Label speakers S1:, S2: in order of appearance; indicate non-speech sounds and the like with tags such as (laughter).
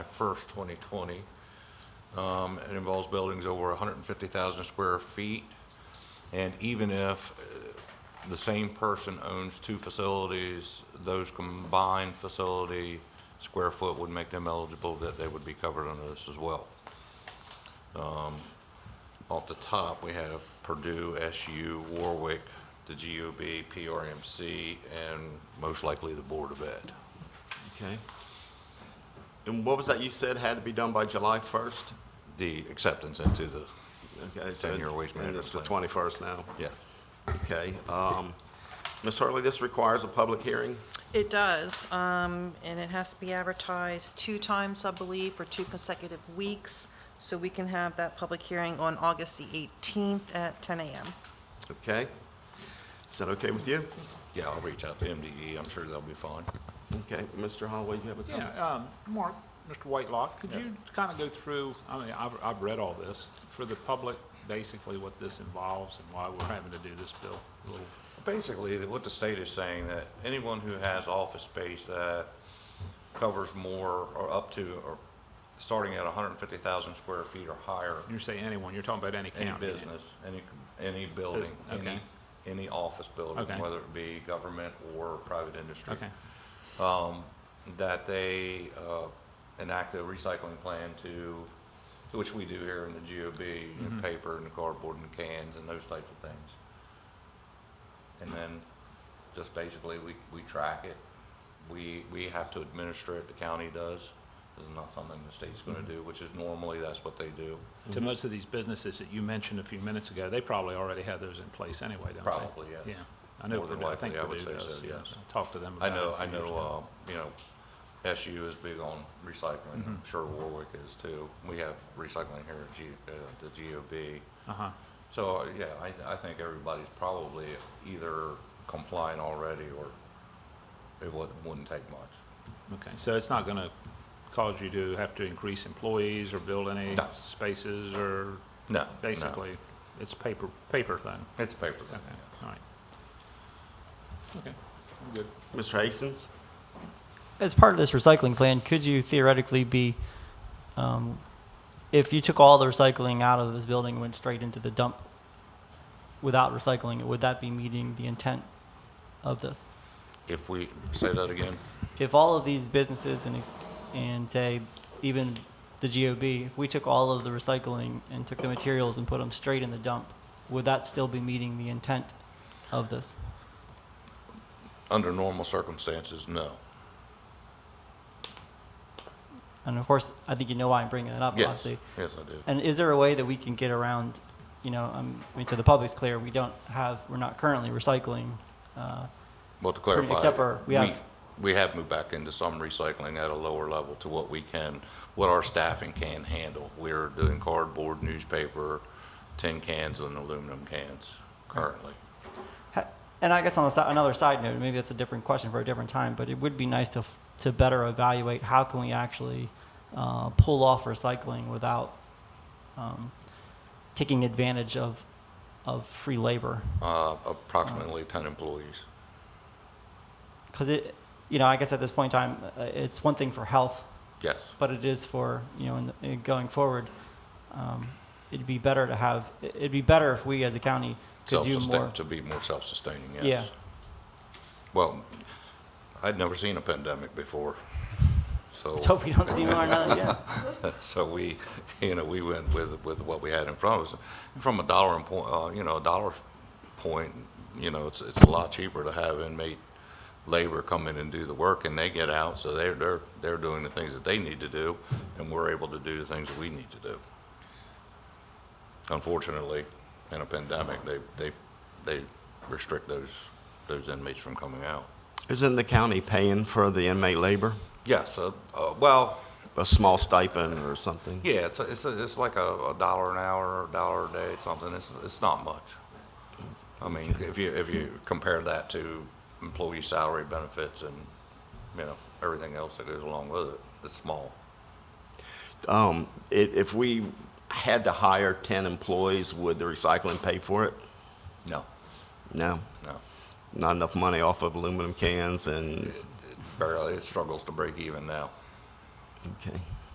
S1: 1st, 2020. Um, It involves buildings over 150,000 square feet. And even if uh, the same person owns two facilities, those combined facility square foot would make them eligible, that they would be covered under this as well. Um, Off the top, we have Purdue, SU, Warwick, the GOB, PRMC, and most likely the Board of Ed.
S2: Okay. And what was that you said had to be done by July 1st?
S1: The acceptance into the,
S2: Okay, so
S1: Ten-year waste
S2: and it's the
S1: management
S2: 21st now.
S1: yes.
S2: Okay. um, Ms. Hurley, this requires a public hearing?
S3: It does, um, and it has to be advertised two times, I believe, for two consecutive weeks, so we can have that public hearing on August the 18th at 10 a.m.
S2: Okay. Is that okay with you?
S1: Yeah, I'll reach out to MDE, I'm sure they'll be fine.
S2: Okay, Mr. Holloway, you have a comment?
S4: Yeah, um, Mark, Mr. Whitelock, could you kind of go through, I mean, I've, I've read all this, for the public, basically what this involves and why we're having to do this bill, a little
S1: Basically, that what the state is saying, that anyone who has office space that covers more or up to, or starting at 150,000 square feet or higher,
S4: You're saying anyone, you're talking about any
S1: any
S4: county.
S1: business, any, any building,
S4: Business,
S1: any,
S4: okay.
S1: any office building,
S4: Okay.
S1: whether it be government or private industry.
S4: Okay,
S1: that they uh, enact a recycling plan to, which we do here in the GOB, you
S4: Mm-hmm.
S1: know, paper and cardboard and cans and those types of things. And then just basically, we, we track it. We, we have to administer it, the county does. This is not something the state's going
S4: Mm-hmm.
S1: to do, which is normally, that's what they do,
S4: to most of these businesses that you mentioned a few minutes ago, they probably already have those in place anyway, don't they?
S1: probably, yes.
S4: Yeah, I know,
S1: More than
S4: Purdue- I think
S1: likely, I would
S4: Purdue
S1: say
S4: does,
S1: so,
S4: yeah,
S1: yes.
S4: I talked to them
S1: I
S4: about it.
S1: know,
S4: a few
S1: I
S4: years ago.
S1: know, uh, you know, SU is big on recycling,
S4: Mm-hmm.
S1: I'm sure Warwick is too. We have recycling here at G, uh, the GOB.
S4: Uh-huh,
S1: So, uh, yeah, I, I think everybody's probably either complying already or it would, wouldn't take much.
S4: okay, so it's not gonna cause you to have to increase employees or build any
S1: No.
S4: spaces or?
S1: No, no.
S4: Basically, it's a paper, paper thing.
S1: It's a paper thing,
S4: Okay,
S1: yeah.
S4: all right. Okay, I'm good.
S2: Mr. Hastings?
S5: As part of this recycling plan, could you theoretically be, um, if you took all the recycling out of this building and went straight into the dump without recycling it, would that be meeting the intent of this?
S1: If we, say that again,
S5: If all of these businesses and, ex- and say even the GOB, if we took all of the recycling and took the materials and put them straight in the dump, would that still be meeting the intent of this?
S1: under normal circumstances, no.
S5: And of course, Oh, I think you know why I'm bringing that up,
S1: Yes,
S5: obviously.
S1: yes, I do.
S5: And is there a way that we can get around, you know, um, I mean, so the public's clear, we don't have, we're not currently recycling. uh,
S1: Well, to clarify.
S5: Except for we have-
S1: We have moved back into some recycling at a lower level to what we can, what our staffing can handle. We're doing cardboard, newspaper, tin cans and aluminum cans currently.
S5: ha- And I guess on the si- another side note, maybe that's a different question for a different time, but it would be nice to, f- to better evaluate how can we actually uh, pull off recycling without um, taking advantage of, of free labor.
S1: Uh, approximately ten employees.
S5: Because it, you know, I guess at this point in time, uh, it's one thing for health,
S1: Yes,
S5: but it is for you know in the, in going forward. Um, it'd be better to have. It'd be better if we as a county could do more.
S1: self-sustain,
S5: (laughs)
S1: to be more self-sustaining, yes.
S5: Yeah.
S1: Well, I'd never seen a pandemic before,
S5: (laughs)
S1: so.
S5: Let's hope we don't see more. Another, yeah.
S1: (laughs) So we, you know, we went with, with what we had in front of us. From a dollar and point, uh, you know, a dollar point, you know, it's, it's a lot cheaper to have inmate labor come in and do the work and they get out, so they're, they're, they're doing the things that they need to do and we're able to do the things that we need to do. Unfortunately, in a pandemic, they, they, they restrict those, those inmates from coming out.
S2: Isn't the county paying for the inmate labor?
S1: Yes, uh, uh, well,
S2: A small stipend or something?
S1: Yeah, it's, it's, it's like a, a dollar an hour, or a dollar a day, something, it's, it's not much. I mean, if you, if you compare that to employee salary benefits and, you know, everything else that goes along with it, it's small.
S2: Um, i- If we had to hire 10 employees, would the recycling pay for it?
S1: No,
S2: No,
S1: no,
S2: not enough money off of aluminum cans and,
S1: barely, it struggles to break even now.
S2: okay.